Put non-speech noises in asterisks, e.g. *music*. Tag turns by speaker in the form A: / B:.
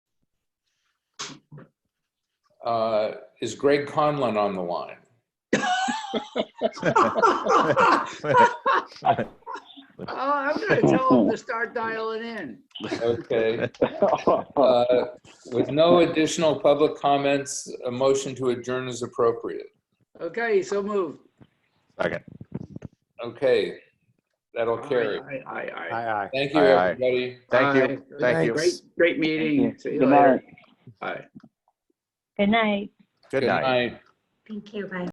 A: uh, is Greg Conlon on the line?
B: Oh, I'm gonna tell them to start dialing in.
C: *laughs*
A: Okay. Uh, With no additional public comments, a motion to adjourn is appropriate.
B: Okay, so moved.
C: Second.
A: Okay, that'll carry.
B: Aye, aye, aye, aye.
D: Aye, aye.
A: Thank you,
C: Aye, aye.
A: everybody.
C: Thank
B: Aye.
C: you. Thank you.
B: Great, great meeting.
E: you.
B: See you
E: Good
B: later.
E: night.
B: Bye.
F: Good night.
C: Good night.
A: night.
F: Thank you. Bye.